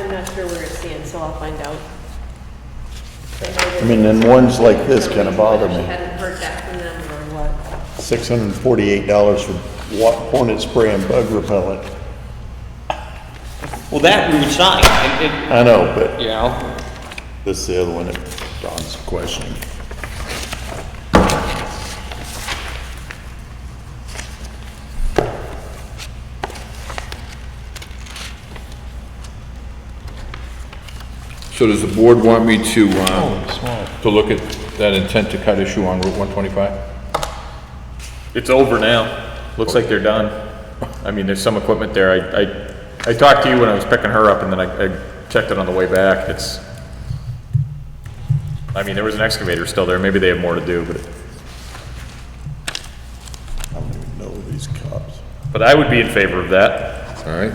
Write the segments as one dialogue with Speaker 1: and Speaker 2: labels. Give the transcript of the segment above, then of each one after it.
Speaker 1: not sure where it stands, so I'll find out.
Speaker 2: I mean, and ones like this kinda bother me.
Speaker 1: She hadn't heard back from them or what.
Speaker 2: Six hundred and forty-eight dollars for wa- hornet spray and bug repellent.
Speaker 3: Well, that we would sign, and,
Speaker 2: I know, but
Speaker 3: and, you know,
Speaker 2: this is the other one that Don's questioning.
Speaker 4: So does the board want me to, uh, to look at that intent to cut issue on Route 125?
Speaker 5: It's over now. Looks like they're done. I mean, there's some equipment there. I, I, I talked to you when I was picking her up and then I, I checked it on the way back. It's, I mean, there was an excavator still there. Maybe they have more to do, but,
Speaker 2: I don't even know these cops.
Speaker 5: but I would be in favor of that.
Speaker 4: All right?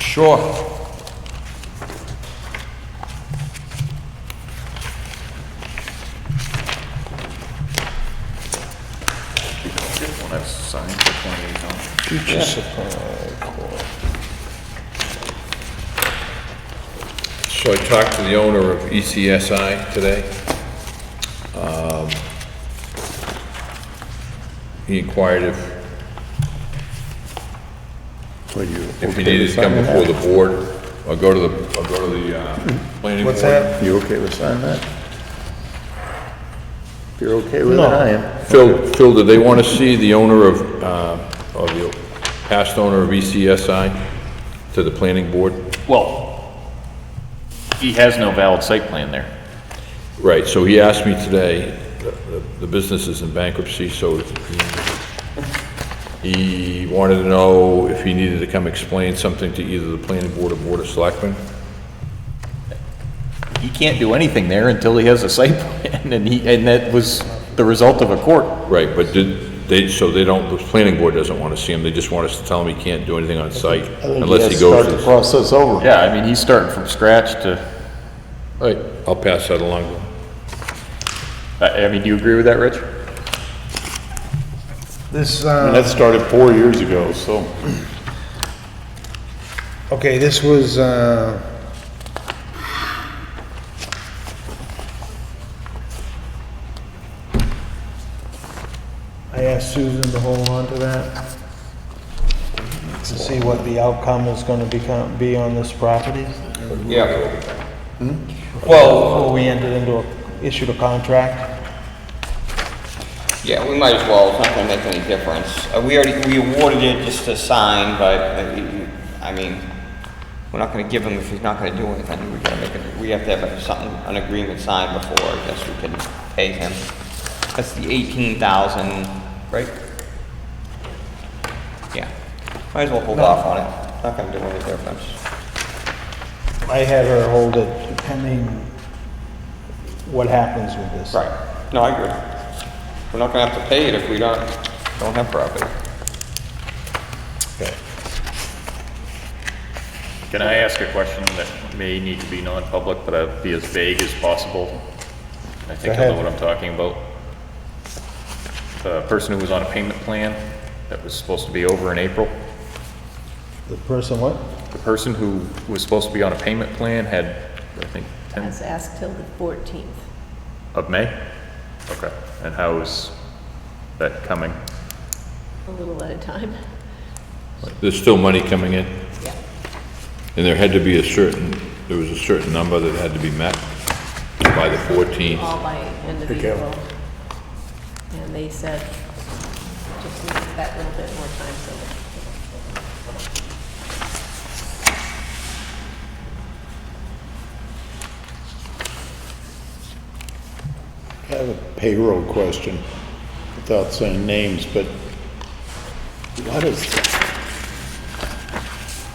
Speaker 4: Sure.
Speaker 5: When I signed for 28 dollars.
Speaker 2: Future supply.
Speaker 4: So I talked to the owner of E ECSI today. Um, He inquired if,
Speaker 2: Well, you.
Speaker 4: if he needed to come before the board, or go to the, or go to the, uh, planning board.
Speaker 2: What's that? You okay with signing that? If you're okay with it, I am.
Speaker 4: Phil, Phil, do they want to see the owner of, uh, of the past owner of E ECSI to the planning board?
Speaker 5: Well, he has no valid site plan there.
Speaker 4: Right, so he asked me today, the- the- the business is in bankruptcy, so he- he wanted to know if he needed to come explain something to either the planning board or board of selectmen.
Speaker 5: He can't do anything there until he has a site plan and he, and that was the result of a court.
Speaker 4: Right, but did, they, so they don't, the planning board doesn't want to see him, they just want us to tell him he can't do anything on site unless he goes
Speaker 2: Start
Speaker 4: to
Speaker 2: the
Speaker 4: the... All
Speaker 2: process over.
Speaker 5: Yeah, I mean, he's starting from scratch to,
Speaker 4: right, I'll pass that along to him.
Speaker 5: I, I mean, do you agree with that, Rich?
Speaker 6: This,
Speaker 2: And
Speaker 6: uh,
Speaker 2: that started four years ago, so.
Speaker 6: okay, this was, uh, I asked Susan to hold on to that to see what the outcome was gonna become, be on this property
Speaker 4: Yeah.
Speaker 3: Hmm?
Speaker 4: Well,
Speaker 6: before we entered into, a- issued a contract.
Speaker 3: yeah, we might as well, it's not gonna make any difference. Uh, we already, we awarded it just to sign, but, uh, you- you- I mean, we're not gonna give him if he's not gonna do anything. We gotta make it, we have to have something, an agreement signed before, I guess we can pay him. That's the eighteen thousand, right? Yeah, might as well hold off on it, not gonna do any difference.
Speaker 6: I had her hold it depending what happens with this.
Speaker 3: Right, no, I agree. We're not gonna have to pay it if we don't, don't have property.
Speaker 5: Can I ask a question that may need to be non-public, but I'll be as vague as possible? I think I know what I'm talking about. The person who was on a payment plan that was supposed to be over in April,
Speaker 6: The person what?
Speaker 5: the person who was supposed to be on a payment plan had, I think, 10
Speaker 1: Let's ask till the 14th.
Speaker 5: of May? Okay, and how is that coming?
Speaker 1: A little at a time.
Speaker 4: there's still money coming in? And there had to be a certain, there was a certain number that had to be met by the 14th.
Speaker 1: all by end of April. And they said, just need that little bit more time, so.
Speaker 2: I have a payroll question, without saying names, but why does,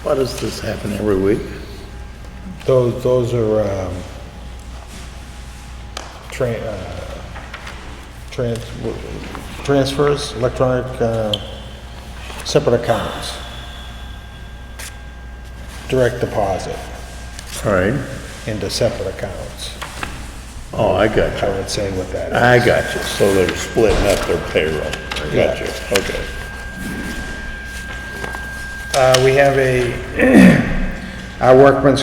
Speaker 2: why does this happen every week?
Speaker 6: Those, those are, um, tran, uh, trans, transfers, electronic, uh, separate accounts. Direct deposit
Speaker 2: All right.
Speaker 6: into separate accounts,
Speaker 2: Oh, I got
Speaker 6: I
Speaker 2: you.
Speaker 6: would say with that.
Speaker 2: I got you. So they're splitting up their payroll. Got you. Okay.
Speaker 6: Uh, we have a, our workman's